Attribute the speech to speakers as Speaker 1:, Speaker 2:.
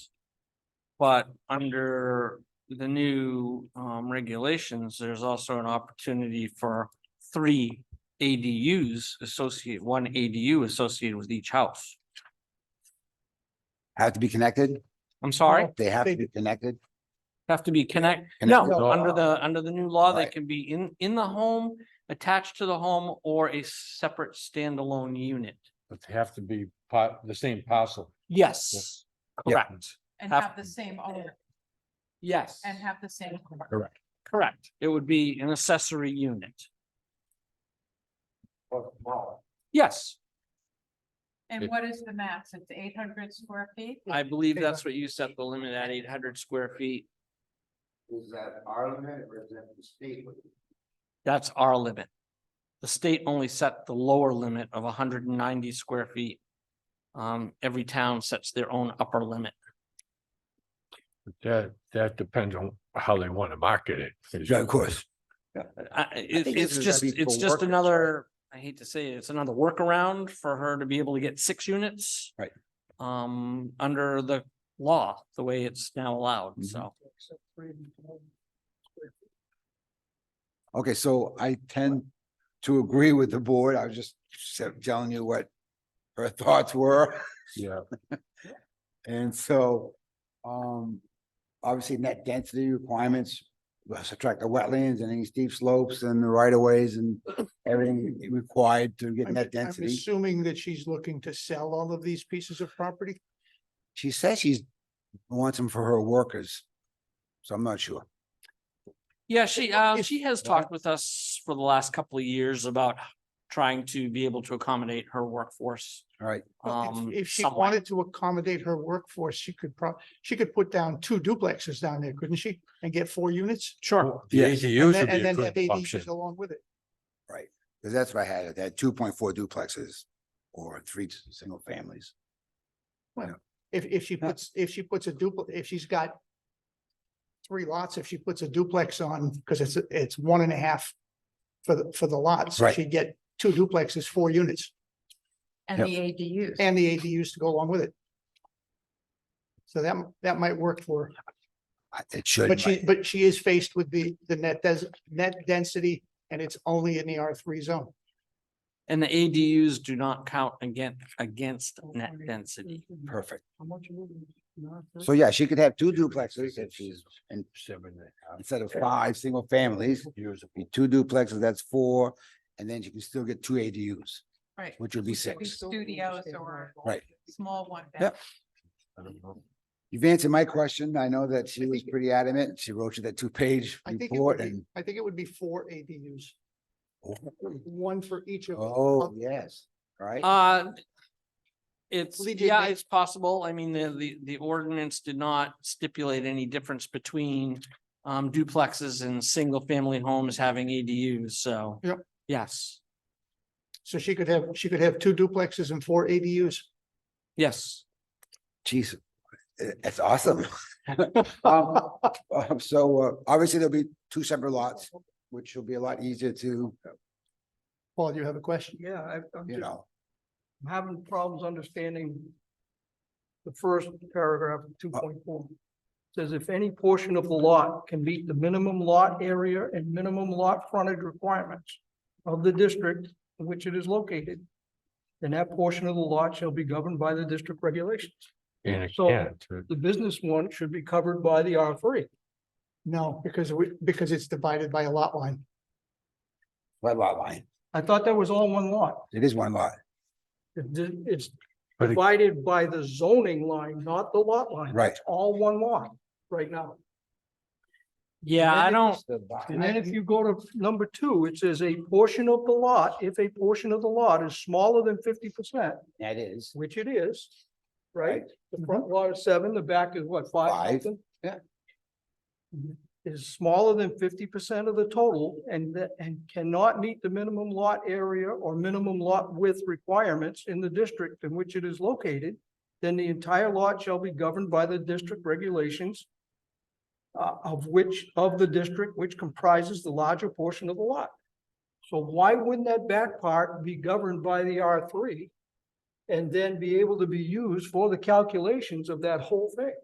Speaker 1: But under the new um regulations, there's also an opportunity for three ADUs associate, one ADU associated with each house.
Speaker 2: Have to be connected?
Speaker 1: I'm sorry,
Speaker 2: They have to be connected?
Speaker 1: have to be connect,
Speaker 2: Connected
Speaker 1: no,
Speaker 2: all-
Speaker 1: under the, under the new law, they
Speaker 2: Right.
Speaker 1: can be in in the home, attached to the home, or a separate standalone unit.
Speaker 3: But they have to be part, the same parcel.
Speaker 1: Yes.
Speaker 2: Yeah.
Speaker 1: Correct,
Speaker 4: And
Speaker 1: Have-
Speaker 4: have the same owner
Speaker 1: yes.
Speaker 4: and have the same.
Speaker 1: Correct, it would be an accessory unit. Yes,
Speaker 4: And what is the max? It's eight hundred square feet?
Speaker 1: I believe that's what you set the limit at, eight hundred square feet.
Speaker 2: Is that our limit or is that the state?
Speaker 1: That's our limit. The state only set the lower limit of hundred and ninety square feet. Um, every town sets their own upper limit.
Speaker 3: But That, that depends on how they want to market it.
Speaker 2: of course.
Speaker 1: I, it's,
Speaker 2: think this
Speaker 1: it's
Speaker 2: is gonna
Speaker 1: just,
Speaker 2: be
Speaker 1: it's
Speaker 2: for
Speaker 1: just
Speaker 2: workers, right?
Speaker 1: another, I hate to say it, it's another workaround for her to be able to get six units.
Speaker 2: Right.
Speaker 1: Um, under the law, the way it's now allowed,
Speaker 2: Mhm.
Speaker 1: so.
Speaker 2: Okay, so I tend to agree with the board. I was just se- telling you what her thoughts were.
Speaker 3: Yeah,
Speaker 2: And so, um, obviously net density requirements, well, subtract the wetlands and any steep slopes and the right of ways and everything required to get
Speaker 5: I'm-
Speaker 2: net
Speaker 5: I'm
Speaker 2: density.
Speaker 5: Assuming that she's looking to sell all of these pieces of property?
Speaker 2: She says she's wants them for her workers. So I'm not sure.
Speaker 1: Yeah, she, uh, she has
Speaker 2: Yeah.
Speaker 1: talked with us for the last couple of years about trying to be able to accommodate her workforce.
Speaker 2: All right.
Speaker 5: Well,
Speaker 1: um,
Speaker 5: If if she
Speaker 1: somewhat.
Speaker 5: wanted to accommodate her workforce, she could prob, she could put down two duplexes down there, couldn't she? And get four units?
Speaker 1: Sure.
Speaker 3: the
Speaker 2: Yes.
Speaker 5: And
Speaker 3: ADUs
Speaker 5: then
Speaker 3: would
Speaker 5: and
Speaker 3: be a
Speaker 5: then have
Speaker 3: good option.
Speaker 5: ADUs along with it.
Speaker 2: Because that's what I had. I had two point four duplexes or three s- single families.
Speaker 5: If, if she
Speaker 2: Yeah.
Speaker 5: puts, if she puts a duplex, if she's got three lots, if she puts a duplex on, because it's, it's one and a half for the, for the lots, so
Speaker 2: Right.
Speaker 5: she'd get two duplexes, four units,
Speaker 4: And
Speaker 2: Yep.
Speaker 4: the ADUs.
Speaker 5: and the ADUs to go along with it. So that, that might work for her.
Speaker 2: I- It should.
Speaker 5: But she, but she is faced with the, the net des, net density and it's only in the R three zone.
Speaker 1: And the ADUs do not count again, against net density.
Speaker 2: Perfect.
Speaker 5: How much? Mm-hmm.
Speaker 2: So yeah, she could have two duplexes if she's, and
Speaker 3: Seven and a half
Speaker 2: instead of five single families,
Speaker 3: years.
Speaker 2: be two duplexes, that's four. And then she can still get two ADUs,
Speaker 4: Right.
Speaker 2: which would be
Speaker 4: Could be
Speaker 2: six.
Speaker 4: Studios or.
Speaker 2: Right.
Speaker 4: Small one.
Speaker 2: Yep.
Speaker 3: I don't know.
Speaker 2: You've answered my question. I know that she was pretty adamant. She wrote you that two page
Speaker 5: I think it would
Speaker 2: report
Speaker 5: be,
Speaker 2: and,
Speaker 5: I think it would be four ADUs, one for each of.
Speaker 2: oh, yes, right?
Speaker 1: Uh, it's,
Speaker 5: Lee, did
Speaker 1: yeah,
Speaker 5: they-
Speaker 1: it's possible. I mean, the, the, the ordinance did not stipulate any difference between um, duplexes and single family homes having ADUs, so.
Speaker 5: Yep.
Speaker 1: Yes,
Speaker 5: So she could have, she could have two duplexes and four ADUs.
Speaker 1: yes.
Speaker 2: Jeez, i- it's eh, awesome. Um, uh, so uh, obviously there'll be two separate lots, which will be a lot easier to,
Speaker 5: Paul, do you have a question?
Speaker 6: Yeah, I- I'm
Speaker 2: you
Speaker 6: just
Speaker 2: know,
Speaker 6: having problems understanding the first paragraph, two
Speaker 2: Uh,
Speaker 6: point four. Says if any portion of the lot can meet the minimum lot area and minimum lot frontage requirements of the district in which it is located, then that portion of the lot shall be governed by the district regulations.
Speaker 3: And it
Speaker 6: So-
Speaker 3: can't. uh,
Speaker 6: The business one should be covered by the R three.
Speaker 5: No, because we, because it's divided by a lot line.
Speaker 2: by lot line.
Speaker 6: I thought that was all one lot.
Speaker 2: It is one lot,
Speaker 6: It di- It's
Speaker 3: But it-
Speaker 6: divided by the zoning line, not the lot line.
Speaker 2: right?
Speaker 6: It's all one lot right now.
Speaker 1: Yeah, I
Speaker 6: Amended-
Speaker 1: don't,
Speaker 6: And then if you go to number two, it says a portion of the lot, if a portion of the lot is smaller than fifty percent,
Speaker 2: That is.
Speaker 6: which it is, right? The front lot is seven, the back is what,
Speaker 2: Five,
Speaker 6: five something?
Speaker 2: yeah.
Speaker 6: Is smaller than fifty percent of the total and that, and cannot meet the minimum lot area or minimum lot width requirements in the district in which it is located, then the entire lot shall be governed by the district regulations uh, of which, of the district which comprises the larger portion of the lot. So why wouldn't that back part be governed by the R three? And then be able to be used for the calculations of that whole thing?